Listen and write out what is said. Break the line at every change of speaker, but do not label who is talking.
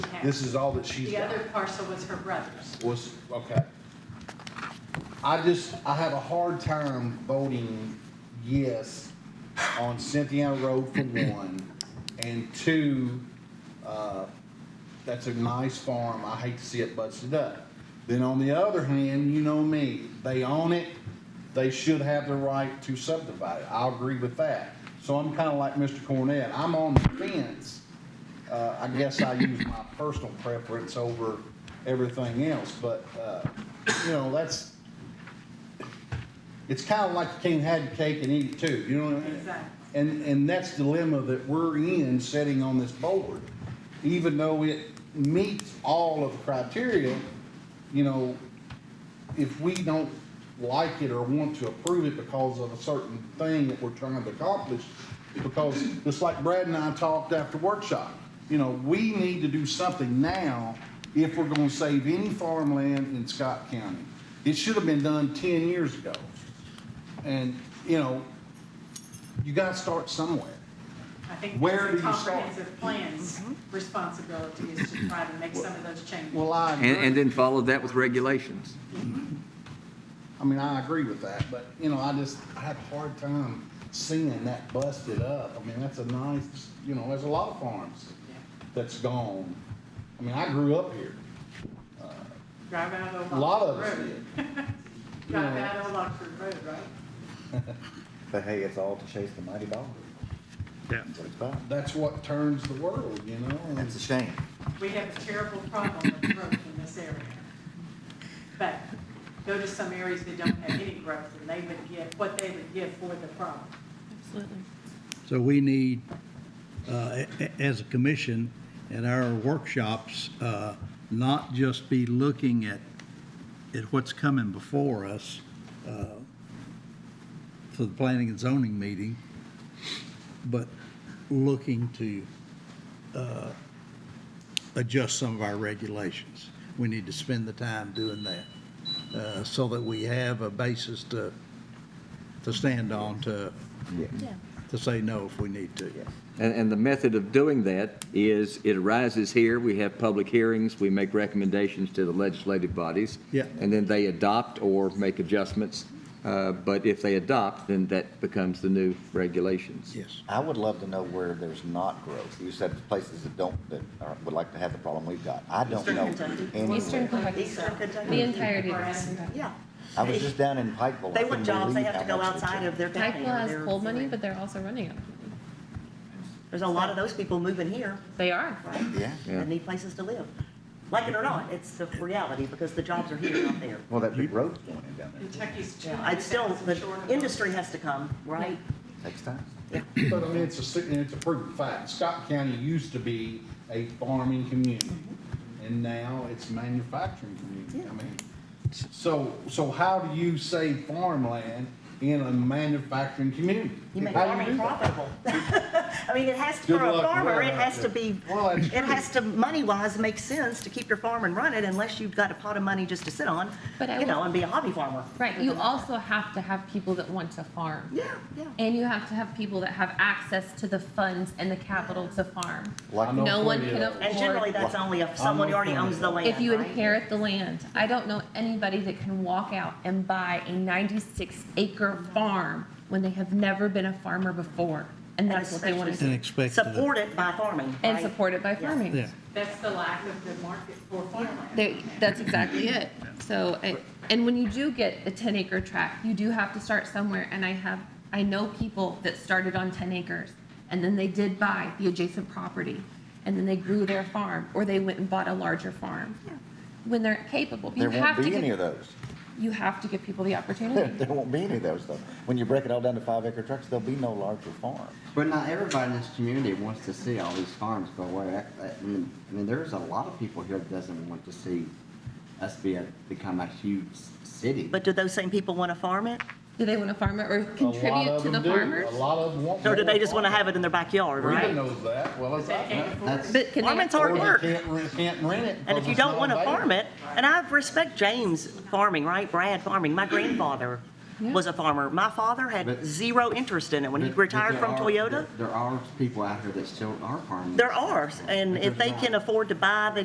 This is all that she's
The
got.
other parcel was her brother's.
Was, okay. I just, I have a hard time voting yes on Cynthia Road for one, and two, uh, that's a nice farm, I hate to see it busted up. Then on the other hand, you know me, they own it, they should have the right to subdivide it, I agree with that. So I'm kinda like Mr. Cornett, I'm on the fence, uh, I guess I use my personal preference over everything else, but, uh, you know, that's, it's kinda like you can't have your cake and eat it too, you know what I mean?
Exactly.
And, and that's the dilemma that we're in sitting on this board. Even though it meets all of the criteria, you know, if we don't like it or want to approve it because of a certain thing that we're trying to accomplish, because just like Brad and I talked after workshop, you know, we need to do something now if we're gonna save any farmland in Scott County. It should have been done ten years ago. And, you know, you gotta start somewhere.
I think
Where do
that's
you
a
start?
comprehensive plan's
Mm-hmm.
responsibility is to try to make some of those changes.
Well, I
And, and
agree,
then follow that with regulations.
I mean, I agree with that, but, you know, I just, I have a hard time seeing that busted up. I mean, that's a nice, you know, there's a lot of farms
Yeah.
that's gone. I mean, I grew up here,
Drive out of Old
a lot of
Lockford
us
Road.
did.
Drive
Yeah.
out of Old Lockford Road, right?
But hey, it's all to chase the mighty dollar.
Yeah.
That's what it's about.
That's what turns the world, you know? and-
That's a shame.
We have a terrible problem with growth in this area. But go to some areas that don't have any growth, and they would get what they would get for the problem.
Absolutely.
So we need, uh, a- a- as a commission, in our workshops, uh, not just be looking at, at what's coming before us uh, for the planning and zoning meeting, but looking to uh, adjust some of our regulations. We need to spend the time doing that, uh, so that we have a basis to, to stand on to
Yeah.
to say no if we need to.
And, and the method of doing that is it arises here, we have public hearings, we make recommendations to the legislative bodies.
Yeah.
And then they adopt or make adjustments. Uh, but if they adopt, then that becomes the new regulations.
Yes.
I would love to know where there's not growth. You said places that don't, that are- would like to have the problem we've got. I don't
Eastern
know
Kentucky.
anywhere.
Eastern Kentucky,
Eastern Kentucky.
The entirety.
Or Athens.
yeah.
I was just down in Pikeville.
They
I
want
couldn't
jobs, they
believe
have to
how
go
much they
outside
took.
of their county.
Pikeville
or
has
their-
cold money, but they're also running out of money.
There's a lot of those people moving here,
They are.
right?
Yeah.
Yeah.
That need places to live. Like it or not, it's the reality because the jobs are here, not there.
Well, that big road's going in down there.
Kentucky's two
Yeah, It's
hundred
still,
thousand
the
short of.
industry has to come, right?
Next time.
But I mean, it's a, si- and it's a proven fact. Scott County used to be a farming community, and now it's a manufacturing community. I mean, so, so how do you save farmland in a manufacturing community?
You make
How do
farming
do that?
profitable. I mean, it has, to
Good
for a
luck with
farmer,
that
it
out
has
there.
to be,
Well, that's
it
true.
has to, money-wise, make sense to keep your farm and run it unless you've got a pot of money just to sit on,
But I
you know,
will-
and be a hobby farmer.
Right. You also have to have people that want to farm.
Yeah, yeah.
And you have to have people that have access to the funds and the capital to farm.
I know
No one
plenty
can
of-
afford.
And generally, that's only if someone who already owns the land,
If you
right?
inherit the land, I don't know anybody that can walk out and buy a ninety-six acre farm when they have never been a farmer before. And that's what they want to
And
do.
expect that-
Support it by farming,
And
right?
supported by
Yeah.
farming.
Yeah.
That's the lack of the market for farmland.
There, that's exactly it. So, I- and when you do get a ten acre tract, you do have to start somewhere, and I have, I know people that started on ten acres, and then they did buy the adjacent property, and then they grew their farm, or they went and bought a larger farm. When they're capable, you
There
have
won't
to
be any of
give,
those.
you have to give people the
There
opportunity.
there won't be any of those though. When you break it all down to five acre trucks, there'll be no larger farms.
But not everybody in this community wants to see all these farms go away. I, I mean, I mean, there's a lot of people here that doesn't want to see us be a, become a huge city.
But do those same people want to farm it?
Do they want to farm it or
A lot
contribute
of
to the
them do.
farmers?
A lot of them want.
Or do they
more
just want to have it in their backyard,
farmland. Rita
right?
knows that, well, as
They
I
can't
know.
afford
That's,
it.
But can they?
Farming's
afford
hard
Or
it?
they
work.
Can't rent, can't rent it.
And if you don't want to farm it, and I respect James farming, right? Brad farming, my grandfather
Yeah.
was a farmer. My father had
But-
zero interest in it. When he
But- but
retired
there
from
are-
Toyota,
There there are people out here that still are farming.
there are, and if they can afford to buy the